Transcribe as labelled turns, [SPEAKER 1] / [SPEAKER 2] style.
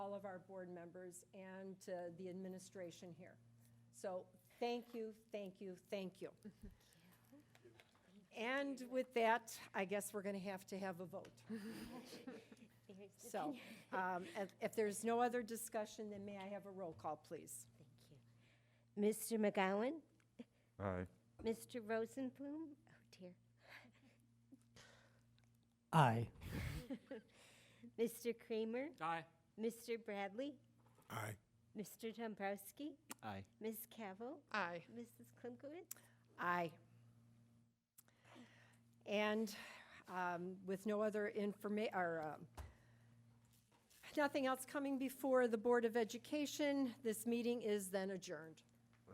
[SPEAKER 1] our board members and to the administration here. So thank you, thank you, thank you. And with that, I guess we're going to have to have a vote.
[SPEAKER 2] There's the
[SPEAKER 1] So
[SPEAKER 2] finger.
[SPEAKER 1] um, if if there's no other discussion, then may I have a roll call, please?
[SPEAKER 2] Thank you. Mr. McGowan?
[SPEAKER 3] Aye.
[SPEAKER 2] Mr. Rosenblum? Oh, dear.
[SPEAKER 4] Aye.
[SPEAKER 2] Mr. Kramer?
[SPEAKER 5] Aye.
[SPEAKER 2] Mr. Bradley?
[SPEAKER 6] Aye.
[SPEAKER 2] Mr. Dombrowski?
[SPEAKER 4] Aye.
[SPEAKER 2] Ms. Cavill?
[SPEAKER 7] Aye.
[SPEAKER 2] Mrs. Klimkowitz?
[SPEAKER 1] Aye. And um, with no other informa, or, um, nothing else coming before the Board of Education, this meeting is then adjourned.